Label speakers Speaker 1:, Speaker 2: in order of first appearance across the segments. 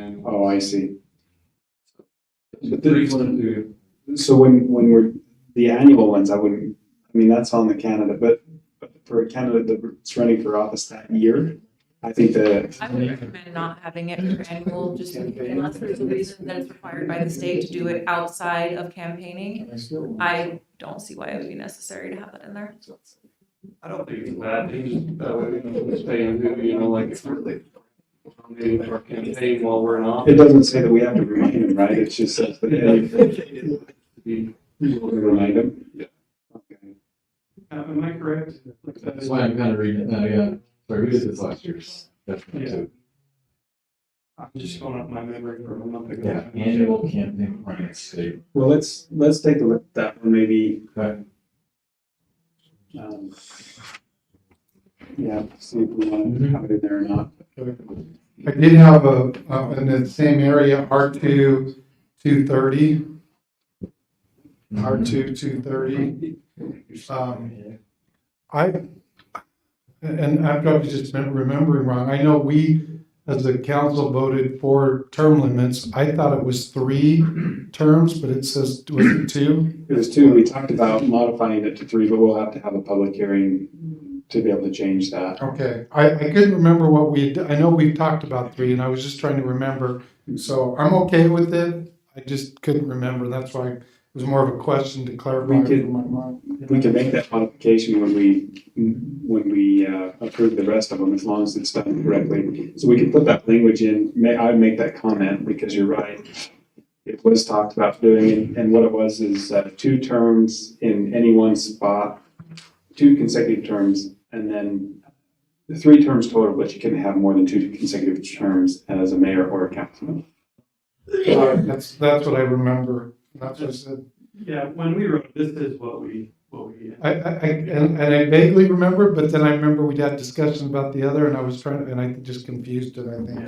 Speaker 1: annual.
Speaker 2: Oh, I see. But
Speaker 1: Three,
Speaker 2: this-
Speaker 1: one, two.
Speaker 2: So when, when we're, the annual ones, I wouldn't, I mean, that's on the candidate, but but for a candidate that's running for office that year, I think that,
Speaker 3: I would recommend not having it for annual, just unless there's a reason that it's required by the state to do it outside of campaigning. I don't see why it would be necessary to have that in there.
Speaker 1: I don't think it's bad, it's just that way we can stay in, who, you know, like, if we're late. Maybe our campaign while we're in
Speaker 2: it
Speaker 1: office.
Speaker 2: doesn't say that we have to remind them, right? It's just says that they
Speaker 1: be-
Speaker 2: remind them.
Speaker 1: Yeah.
Speaker 2: Okay.
Speaker 1: Am am I correct? Like,
Speaker 4: That's why I'm kind of reading it now, yeah. Sorry, we did this last year's.
Speaker 1: Yeah.
Speaker 4: definitely, too.
Speaker 1: I'm just going up my memory from a month
Speaker 4: Yeah,
Speaker 1: ago.
Speaker 4: annual campaign finance state.
Speaker 2: Well, let's, let's take a look at that one, maybe.
Speaker 4: Okay.
Speaker 2: um, Yeah, see if we want to have it in there or not.
Speaker 5: I did have a, uh, in the same area, R two, two thirty,
Speaker 4: Mm-hmm.
Speaker 5: R two, two thirty. Um, I, and I'm probably just remembering wrong. I know we, as a council, voted for term limits. I thought it was three terms, but it says, was it two?
Speaker 2: It was two, we talked about modifying it to three, but we'll have to have a public hearing to be able to change that.
Speaker 5: Okay, I, I couldn't remember what we, had- I know we've talked about three, and I was just trying to remember. So I'm okay with it. I just couldn't remember. That's why it was more of a question to clarify
Speaker 2: We could-
Speaker 5: in my mind.
Speaker 2: We can make that modification when we, when we uh, approve the rest of them, as long as it's done correctly. So we can put that language in, may, I make that comment, because you're right. It was talked about doing, and- and what it was is uh, two terms in any one spot, two consecutive terms, and then three terms total, but you can have more than two consecutive terms as a mayor or a councilman.
Speaker 5: Uh, That's, that's what I remember. That's what I said.
Speaker 1: Yeah, when we wrote, this is what we, what we.
Speaker 5: I, I, I- and, and I vaguely remember, but then I remember we had discussion about the other, and I was trying, and I just confused it, I think.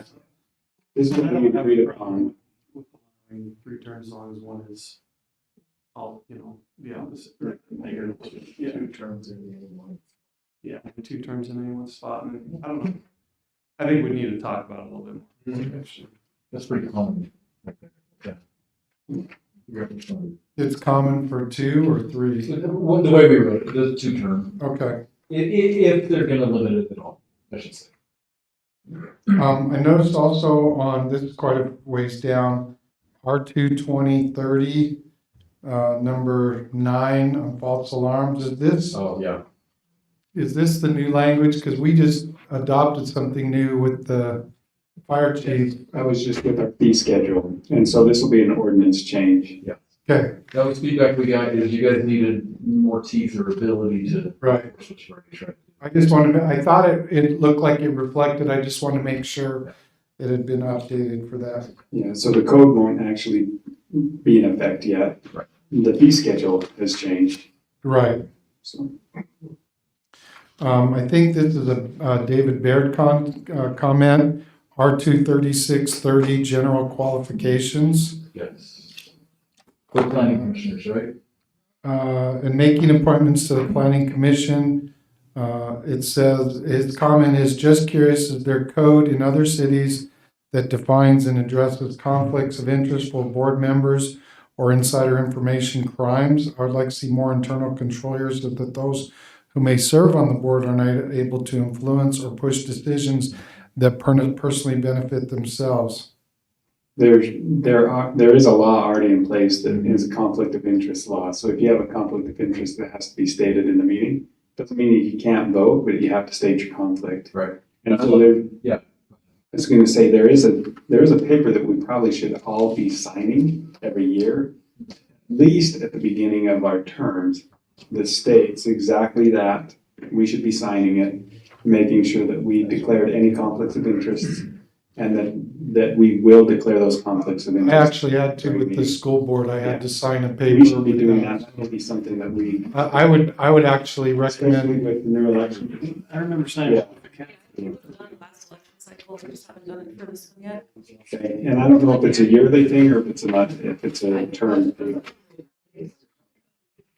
Speaker 2: This is what we agreed upon.
Speaker 1: with allowing Three terms as long as one is, all you know, the opposite, or mayor. Yeah,
Speaker 4: terms in the one.
Speaker 1: yeah, two terms in any one spot, and I don't know. I think we need to talk about it a little bit
Speaker 2: Mm-hmm.
Speaker 1: more.
Speaker 4: That's pretty common. Yeah.
Speaker 5: It's common for two or three.
Speaker 4: Well, The way we wrote it, the two term,
Speaker 5: Okay.
Speaker 4: i- i- if they're gonna limit it at all, I should say.
Speaker 5: Um, I noticed also on, this is quite a ways down, R two twenty thirty, uh, number nine on false alarms. Is this,
Speaker 4: Oh, yeah.
Speaker 5: is this the new language? Cause we just adopted something new with the fire chief.
Speaker 2: I was just with our fee schedule, and so this will be an ordinance change.
Speaker 5: Okay,
Speaker 4: That was feedback we got, is you guys needed more teeth or ability to.
Speaker 5: right. I just wanted, to- I thought it, it looked like it reflected. I just want to make sure it had been updated for that.
Speaker 2: Yeah, so the code won't actually be in effect yet.
Speaker 4: Right.
Speaker 2: The fee schedule has changed,
Speaker 5: Right.
Speaker 2: so.
Speaker 5: Um, I think this is a, uh, David Baird con, uh, comment, R two thirty-six thirty, general qualifications.
Speaker 4: Yes. For planning commissioners, right?
Speaker 5: Uh, and making appointments to the planning commission. Uh, it says, his comment is just curious, is there code in other cities that defines and addresses conflicts of interest for board members or insider information crimes? I would like to see more internal controllers that that those who may serve on the board are not able to influence or push decisions that per- personally benefit themselves.
Speaker 2: There, there are, there is a law already in place that is a conflict of interest law, so if you have a conflict of interest that has to be stated in the meeting, doesn't mean you can't vote, but you have to state your conflict.
Speaker 4: Right.
Speaker 2: And so there.
Speaker 4: Yeah.
Speaker 2: I was gonna say, there is a, there is a paper that we probably should all be signing every year, at least at the beginning of our terms, that states exactly that. We should be signing it, making sure that we declared any conflicts of interests and that, that we will declare those conflicts of
Speaker 5: I
Speaker 2: interest.
Speaker 5: actually had to with the school board, I had to sign a paper.
Speaker 2: We should be
Speaker 5: with
Speaker 2: doing that, that would be something that we,
Speaker 5: I, I would, I would actually
Speaker 2: especially
Speaker 5: recommend,
Speaker 2: with the new election.
Speaker 1: I remember saying.
Speaker 3: It was done last election cycle, we just haven't done it for this one yet.
Speaker 2: Okay, And I don't know if it's a yearly thing or if it's a month, if it's a term thing.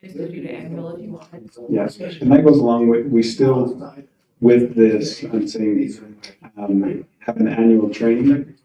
Speaker 3: It's due to annual if you want.
Speaker 2: Yes, and that goes along with, we still, with this, I'm saying, um, have an annual training